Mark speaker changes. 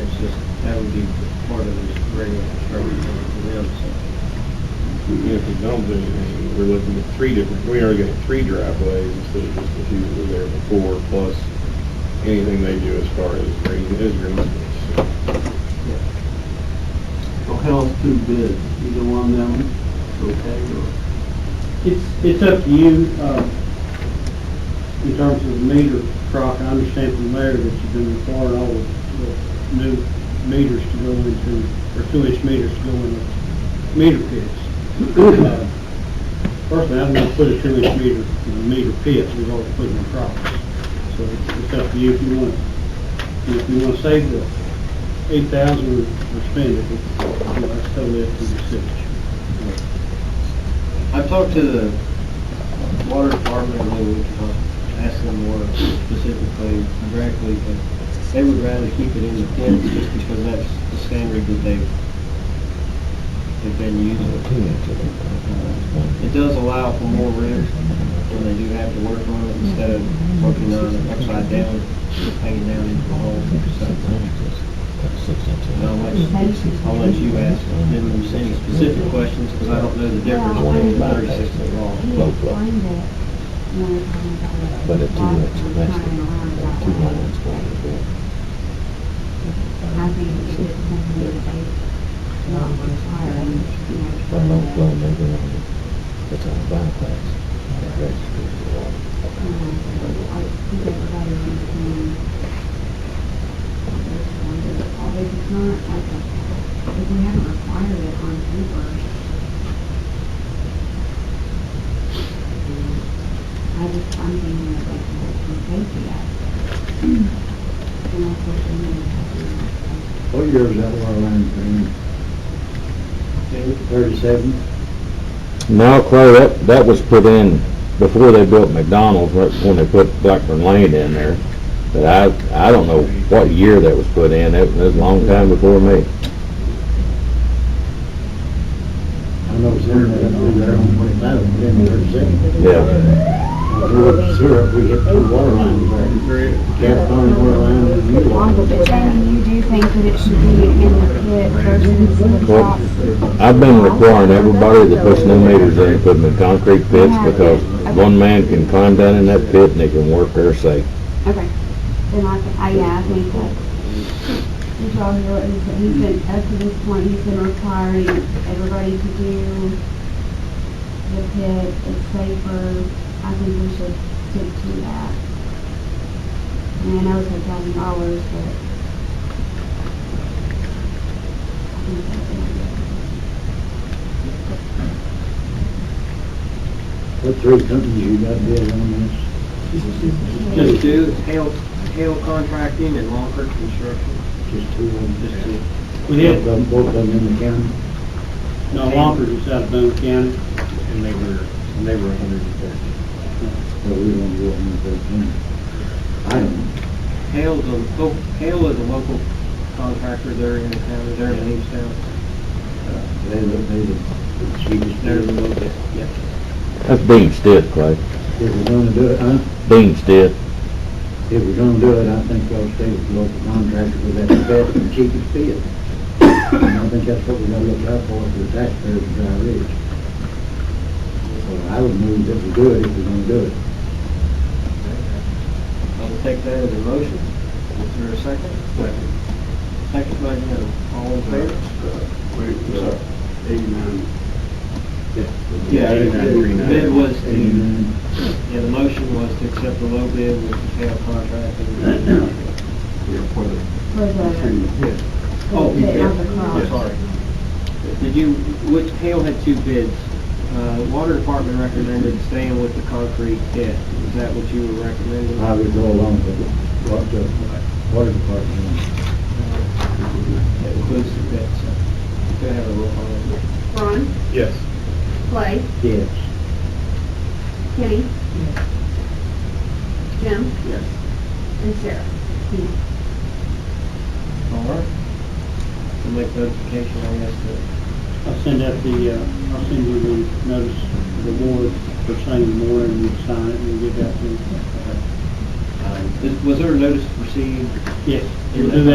Speaker 1: it's just, that would be part of this regular construction for them, so.
Speaker 2: If we don't do anything, we're looking at three different, we already got three driveways instead of just the two that were there before, plus anything they do as far as green, as green space. So,
Speaker 3: So how's two bids, either one of them, okay, or?
Speaker 1: It's, it's up to you, uh, in terms of the meter, Croc, I understand from there that you've been requiring all the the new meters to go into, or two-inch meters to go into meter pits. Uh, Personally, I'm gonna put a two-inch meter in a meter pit, we've already put it in Croc's. So it's it's up to you if you want, if you wanna save the eight thousand or spend it, it's- you know, that's totally up to the city.
Speaker 3: I talked to the water department, and we could ask them more specifically directly, but they would rather keep it in the pits just because that's the standard that they've, they've been using. It does allow for more risk when they do have to work on it instead of working on it upside down, hanging down into the hole. So and I'll let, I'll let you ask them any specific questions because I don't know the difference between thirty-six and wrong.
Speaker 4: Low blow. But a two inch eventually, a two lines going to bed. But low blow, maybe on the, it's on the bypass, that registers the water.
Speaker 5: Although it's not like a, if we haven't required it on paper. I just, I'm thinking of like, the safety aspect. And of course, we need to have the-
Speaker 6: What year is that water line agreement? Thirty-seven?
Speaker 4: No, Clay, that, that was put in before they built McDonald's, right when they put Blackburn Lane in there. But I, I don't know what year that was put in, that was a long time before me.
Speaker 6: I know it's there, I know there on twenty-five, but then thirty-seven.
Speaker 4: Yeah.
Speaker 6: We're up sewer, we get two water lines there. California water line and new water.
Speaker 7: But Jamie, you do think that it should be in the pit versus the
Speaker 4: Well,
Speaker 7: top?
Speaker 4: I've been requiring everybody that puts new meters in, put them in concrete pits, because one man can climb down in that pit and they can work there safe.
Speaker 5: Okay, then I, I, yeah, I think that, the job here is that he's been, up to this point, he's been requiring everybody to do the pit, it's safer, I think we should stick to that. I mean, I know it's a thousand dollars, but. I think that's it.
Speaker 6: What three companies you got bid on this?
Speaker 3: Just do, Hale, Hale Contracting and Longford Construction,
Speaker 6: Just two of them,
Speaker 3: just to,
Speaker 1: We had
Speaker 6: Both of them- Both of them in the county?
Speaker 1: No, Longford was out of Boone County, and they were, and they were a hundred and thirty.
Speaker 6: Well, we don't go up in thirteen. I don't.
Speaker 3: Hale's a, lo- Hale is a local contractor there in the town, they're in Leestown.
Speaker 6: They look, they look, the cheapest.
Speaker 3: They're the local, yeah.
Speaker 4: That's Dean Stitt, Clay.
Speaker 6: If we're gonna do it, huh?
Speaker 4: Dean Stitt.
Speaker 6: If we're gonna do it, I think I'll stay with the local contractor with that best and cheapest bid. And I think that's what we're gonna look out for, for the taxpayers of Dry Ridge. So I would move that we do it if we're gonna do it.
Speaker 3: I'll take that as a motion. Is there a second? Second. Second by Jim. All in favor? Yeah, the bid was the,
Speaker 6: And,
Speaker 3: yeah, the motion was to accept the low bid with the sale contract. and-
Speaker 5: For the,
Speaker 3: Oh,
Speaker 5: Yeah,
Speaker 3: yeah,
Speaker 5: the cost.
Speaker 3: I'm sorry. Did you, which, Hale had two bids. Uh, Water Department recommended staying with the concrete pit. Is that what you were recommending?
Speaker 6: uh, I would go along with what the water department.
Speaker 3: That includes the pit, so. Go ahead, a roll call.
Speaker 7: Ron,
Speaker 2: Yes.
Speaker 7: Clay,
Speaker 6: Yes.
Speaker 7: Kenny? Jim?
Speaker 3: Yes.
Speaker 7: And Sarah.
Speaker 3: All right. To make notification, I guess, that
Speaker 1: I'll send out the, uh, I'll send you the notice to the board for Sunday morning, and you sign it and get that to,
Speaker 3: Is- Was um, there a notice to proceed
Speaker 1: yes, we'll do that